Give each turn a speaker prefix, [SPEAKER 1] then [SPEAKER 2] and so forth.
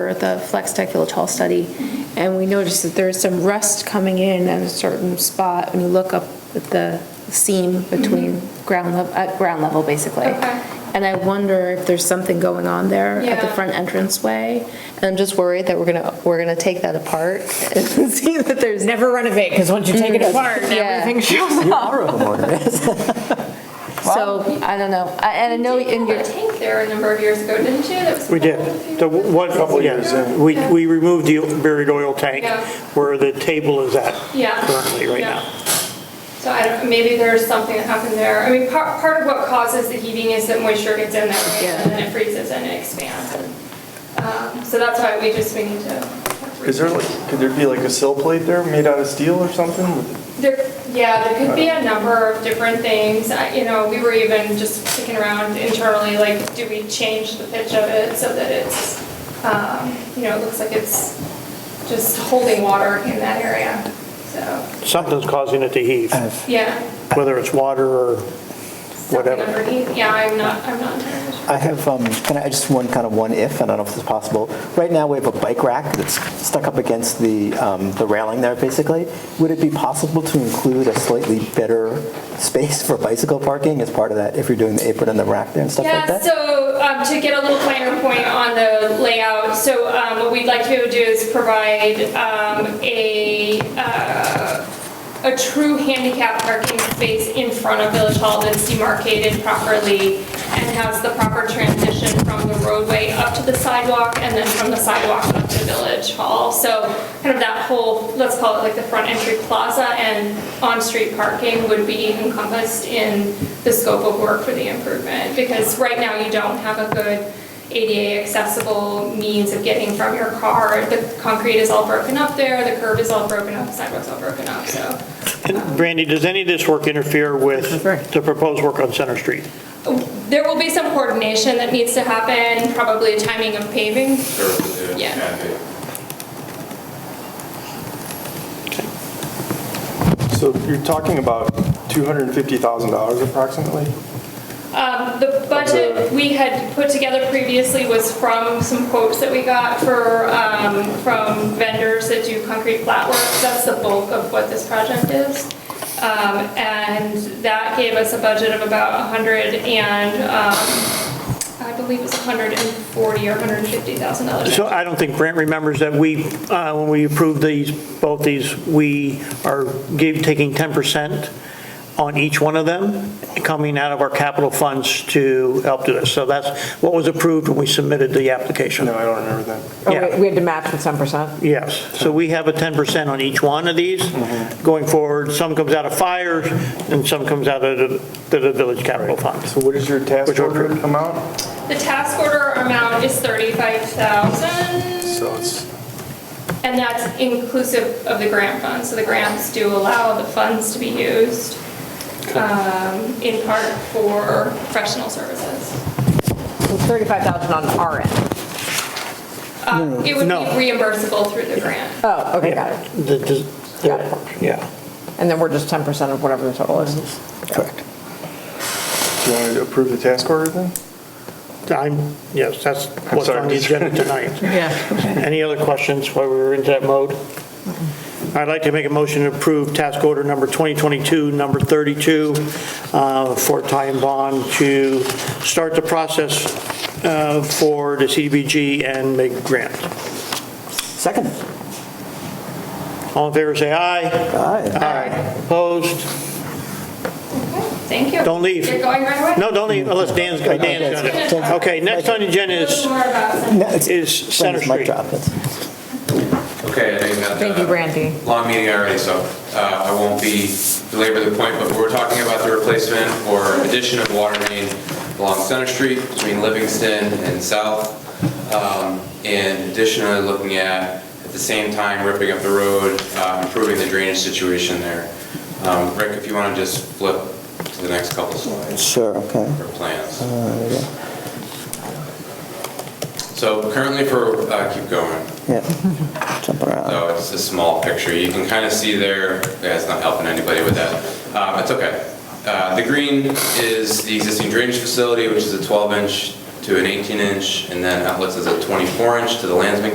[SPEAKER 1] for the Flex Tech Village Hall study, and we noticed that there's some rust coming in at a certain spot, when you look up at the seam between ground level, at ground level, basically.
[SPEAKER 2] Mm-hmm. Okay.
[SPEAKER 1] And I wonder if there's something going on there at the
[SPEAKER 2] Yeah.
[SPEAKER 1] front entranceway. And I'm just worried that we're gonna, we're gonna take that apart and see that there's.
[SPEAKER 3] Never renovate, because once you take it apart,
[SPEAKER 1] Yeah.
[SPEAKER 3] everything shows
[SPEAKER 4] Mm. You
[SPEAKER 3] up.
[SPEAKER 4] are a homeowner.
[SPEAKER 1] So, I don't know, I- and I know in
[SPEAKER 2] You
[SPEAKER 1] your.
[SPEAKER 2] had a tank there a number of years ago, didn't you? That was
[SPEAKER 5] We did.
[SPEAKER 2] full of
[SPEAKER 5] The
[SPEAKER 2] fumes and
[SPEAKER 5] one,
[SPEAKER 2] stuff.
[SPEAKER 5] yeah, we, we removed the buried oil tank
[SPEAKER 2] Yeah.
[SPEAKER 5] where the table is at
[SPEAKER 2] Yeah.
[SPEAKER 5] currently, right
[SPEAKER 2] Yeah.
[SPEAKER 5] now.
[SPEAKER 2] So I don't, maybe there's something that happened there. I mean, part, part of what causes the heating is that moisture gets in there, right?
[SPEAKER 1] Yeah.
[SPEAKER 2] and then it freezes and it expands. and, um, So that's why we just, we need to.
[SPEAKER 6] Is there like, could there be like a sill plate there made out of steel or something? with-
[SPEAKER 2] There, yeah, there could be a number of different things. I- You know, we were even just kicking around internally, like, do we change the pitch of it so that it's, um, you know, it looks like it's just holding water in that area, so,
[SPEAKER 5] Something's causing it to heave,
[SPEAKER 2] yeah.
[SPEAKER 5] whether it's water or
[SPEAKER 2] something
[SPEAKER 5] whatever.
[SPEAKER 2] underneath. Yeah, I'm not, I'm not entirely sure.
[SPEAKER 4] I have, um, can I, just one kind of one if, I don't know if this is possible. Right now, we have a bike rack that's stuck up against the, um, the railing there, basically. Would it be possible to include a slightly better space for bicycle parking as part of that, if you're doing the apron and the rack there and stuff like
[SPEAKER 2] Yeah,
[SPEAKER 4] that?
[SPEAKER 2] so um, to get a little finer point on the layout, so um, what we'd like to be able to do is provide um, a, uh, a true handicap parking space in front of Village Hall that's demarcated properly and has the proper transition from the roadway up to the sidewalk and then from the sidewalk up to Village Hall. So kind of that whole, let's call it like the front entry plaza and on-street parking would be encompassed in the scope of work for the improvement. Because right now you don't have a good ADA accessible means of getting from your car. The concrete is all broken up there, the curb is all broken up, the sidewalk's all broken up, so.
[SPEAKER 5] And Brandy, does any of this work interfere with the proposed work on Center Street?
[SPEAKER 2] There will be some coordination that needs to happen, probably timing of paving.
[SPEAKER 7] Sure,
[SPEAKER 2] Yeah.
[SPEAKER 7] yeah, can be.
[SPEAKER 6] So you're talking about $250,000 approximately?
[SPEAKER 2] Um, The budget we had put together previously was from some quotes that we got for, um, from vendors that do concrete flat work. That's the bulk of what this project is. Um, And that gave us a budget of about 100 and, um, I believe it was 140 or 150,000 dollars.
[SPEAKER 5] So I don't think Brent remembers that we, uh, when we approved these, both these, we are give, taking 10% on each one of them, coming out of our capital funds to help do this. So that's what was approved when we submitted the application.
[SPEAKER 6] No, I don't remember that.
[SPEAKER 3] Oh,
[SPEAKER 5] Yeah.
[SPEAKER 3] wait, We had to match with 10%.
[SPEAKER 5] Yes, so we have a 10% on each one of these
[SPEAKER 6] Mm-hmm.
[SPEAKER 5] going forward. Some comes out of fires and some comes out of the, the village capital fund.
[SPEAKER 6] So what is your task
[SPEAKER 5] Which one?
[SPEAKER 6] order amount?
[SPEAKER 2] The task order amount is 35,000.
[SPEAKER 6] So it's,
[SPEAKER 2] And that's inclusive of the grant funds, so the grants do allow the funds to be used um, in part for professional services.
[SPEAKER 3] So 35,000 on our end.
[SPEAKER 2] Um, It would be
[SPEAKER 5] No.
[SPEAKER 2] reimbursable through the grant.
[SPEAKER 3] Oh, okay, got it.
[SPEAKER 5] The- the-
[SPEAKER 3] Got it.
[SPEAKER 5] Yeah.
[SPEAKER 3] And then we're just 10% of whatever the total is.
[SPEAKER 4] Correct.
[SPEAKER 6] do you want to approve the task order then?
[SPEAKER 5] I'm, yes, that's what's
[SPEAKER 6] sorry.
[SPEAKER 5] on the agenda tonight. Any other questions while we were into that mode? I'd like to make a motion to approve task order number 2022, number 32, uh, for Ty and Bond to start the process uh, for the CDBG and make grant.
[SPEAKER 4] Second.
[SPEAKER 5] All in favor, say aye.
[SPEAKER 4] Aye.
[SPEAKER 5] Opposed?
[SPEAKER 2] Thank you.
[SPEAKER 5] Don't leave.
[SPEAKER 2] You're going right away?
[SPEAKER 5] No, don't leave unless Dan's, Dan's got it. Okay, next on the agenda is,
[SPEAKER 2] More about some-
[SPEAKER 4] No, it's-
[SPEAKER 5] is Center
[SPEAKER 4] it's mic
[SPEAKER 5] Street.
[SPEAKER 4] drop, it's-
[SPEAKER 7] Okay, I think that. uh,
[SPEAKER 3] Thank you, Brandy.
[SPEAKER 7] Long meeting already, so uh, I won't be belabor the point, but we're talking about the replacement or addition of water main along Center Street between Livingston and South. Um, And additionally, looking at, at the same time, ripping up the road, uh, improving the drainage situation there. Um, Rick, if you want to just flip to the next couple slides
[SPEAKER 4] Sure, okay.
[SPEAKER 7] for plans.
[SPEAKER 4] Uh, yeah.
[SPEAKER 7] So currently for, uh, keep going.
[SPEAKER 4] Yeah, jumping around.
[SPEAKER 7] So it's a small picture. You can kind of see there, yeah, it's not helping anybody with that. Um, It's okay. Uh, The green is the existing drainage facility, which is a 12-inch to an 18-inch, and then outlets is a 24-inch to the Landsman